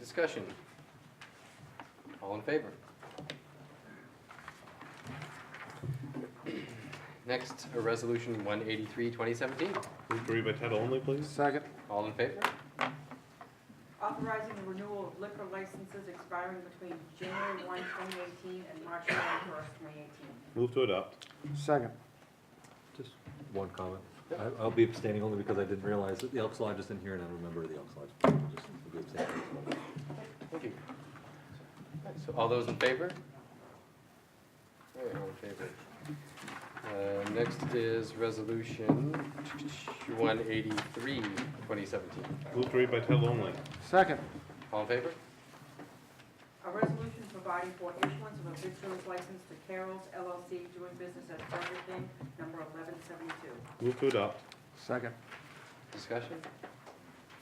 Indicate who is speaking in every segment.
Speaker 1: discussion? All in favor? Next, a resolution one eighty-three, twenty seventeen.
Speaker 2: Move to read by title only, please.
Speaker 3: Second.
Speaker 1: All in favor?
Speaker 4: Authorizing the renewal of liquor licenses expiring between January 1, 2018 and March 31, 2018.
Speaker 2: Move to adopt.
Speaker 3: Second.
Speaker 5: Just one comment. I- I'll be abstaining only because I didn't realize that the Elks Lodge is in here and I remember the Elks Lodge. Just I'll be abstaining.
Speaker 1: Thank you. So all those in favor? All in favor. Uh, next is resolution one eighty-three, twenty seventeen.
Speaker 2: Move to read by title only.
Speaker 3: Second.
Speaker 1: All in favor?
Speaker 4: A resolution providing for issuance of a victor's license to Carol's LLC doing business as Burger King, number 1172.
Speaker 2: Move to adopt.
Speaker 3: Second.
Speaker 1: Discussion?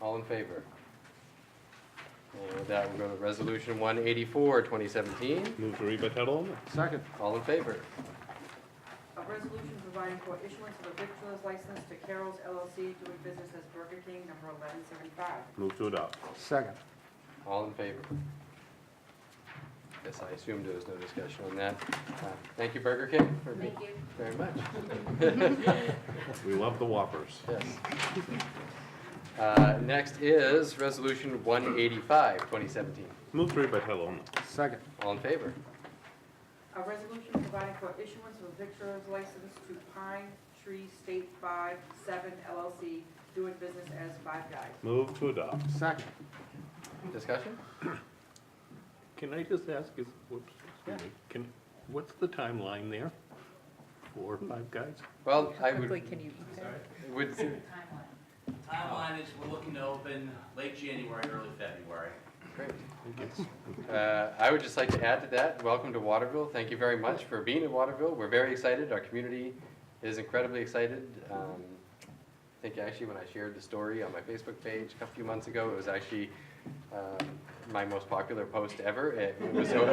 Speaker 1: All in favor? And with that, we'll go to resolution one eighty-four, twenty seventeen.
Speaker 2: Move to read by title only.
Speaker 3: Second.
Speaker 1: All in favor?
Speaker 4: A resolution providing for issuance of a victor's license to Carol's LLC doing business as Burger King, number 1175.
Speaker 2: Move to adopt.
Speaker 3: Second.
Speaker 1: All in favor? Yes, I assumed there was no discussion on that. Uh, Thank you, Burger King. Thank you. Very much.
Speaker 2: We love the Whoppers.
Speaker 1: Yes. Uh, Next is resolution one eighty-five, twenty seventeen.
Speaker 2: Move to read by title only.
Speaker 3: Second.
Speaker 1: All in favor?
Speaker 4: A resolution providing for issuance of a victor's license to Pine Tree State 5, 7 LLC doing business as Five Guys.
Speaker 2: Move to adopt.
Speaker 3: Second.
Speaker 1: Discussion?
Speaker 6: Can I just ask, is, whoops, excuse me, can, what's the timeline there? Four or five guys?
Speaker 1: Well, I
Speaker 7: Quickly,
Speaker 1: would,
Speaker 7: can you eat that?
Speaker 1: would
Speaker 8: Timeline is, we're looking to open late January, early February.
Speaker 1: Great. Uh, I would just like to add to that, welcome to Waterville. Thank you very much for being in Waterville. We're very excited. Our community is incredibly excited. Um, I think actually when I shared the story on my Facebook page a few months ago, it was actually um, my most popular post ever. It was, it was-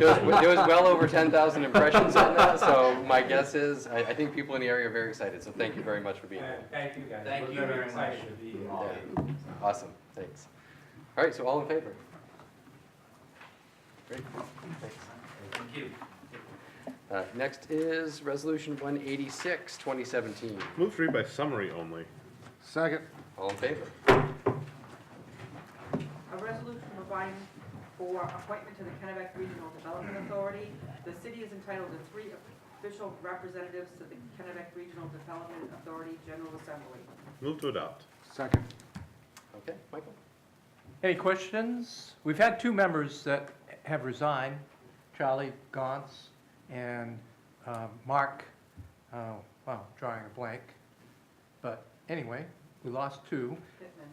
Speaker 1: it was well over 10,000 impressions on that, so my guess is, I I think people in the area are very excited, so thank you very much for being here.
Speaker 9: Thank you, guys.
Speaker 8: Thank
Speaker 9: We're
Speaker 8: you
Speaker 9: very
Speaker 8: very
Speaker 9: excited
Speaker 8: much.
Speaker 9: to be here.
Speaker 8: All
Speaker 1: Yeah. Awesome, thanks. All right, so all in favor? Great, thanks.
Speaker 8: Thank you.
Speaker 1: Uh, Next is Resolution 186, 2017.
Speaker 2: Move to read by summary only.
Speaker 3: Second.
Speaker 1: All in favor?
Speaker 4: A resolution providing for appointment to the Kennebec Regional Development Authority. The city is entitled to three official representatives to the Kennebec Regional Development Authority General Assembly.
Speaker 2: Move to adopt.
Speaker 3: Second.
Speaker 1: Okay, Michael?
Speaker 9: Any questions? We've had two members that have resigned, Charlie Gauntz and um, Mark, uh, well, drawing a blank. But anyway, we lost two.
Speaker 4: Pittman.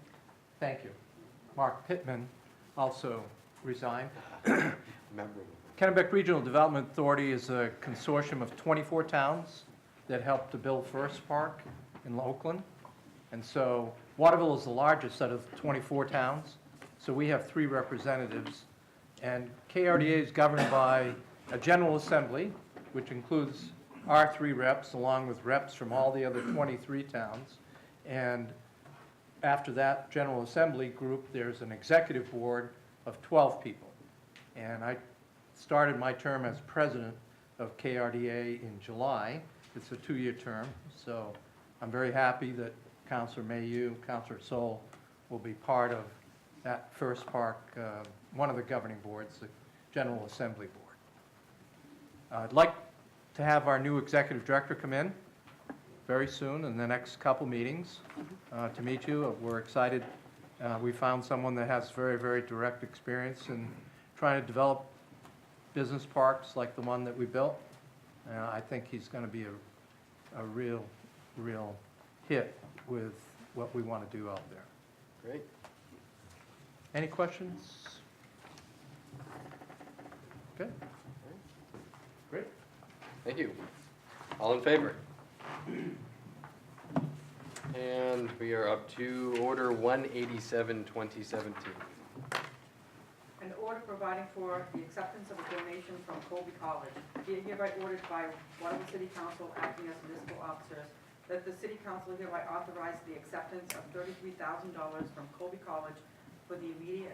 Speaker 9: Thank you. Mark Pittman also resigned.
Speaker 1: Memorable.
Speaker 9: Kennebec Regional Development Authority is a consortium of 24 towns that helped to build First Park in Oakland. And so Waterville is the largest out of 24 towns, so we have three representatives. And KRDA is governed by a general assembly, which includes our three reps, along with reps from all the other 23 towns. And after that general assembly group, there's an executive board of 12 people. And I started my term as president of KRDA in July. It's a two-year term, so I'm very happy that Counselor Mayu, Counselor Sol will be part of that First Park, uh, one of the governing boards, the General Assembly Board. Uh, I'd like to have our new executive director come in very soon, in the next couple meetings, uh, to meet you. Uh, We're excited. Uh, We found someone that has very, very direct experience in trying to develop business parks like the one that we built. Uh, I think he's going to be a, a real, real hit with what we want to do out there.
Speaker 1: Great.
Speaker 9: Any questions? Good. Great.
Speaker 1: Thank you. All in favor? And we are up to Order 187, 2017.
Speaker 4: An order providing for the acceptance of a donation from Colby College. Be it hereby ordered by Waterloo City Council acting as municipal officers that the city council hereby authorize the acceptance of thirty-three thousand dollars from Colby College for the immediate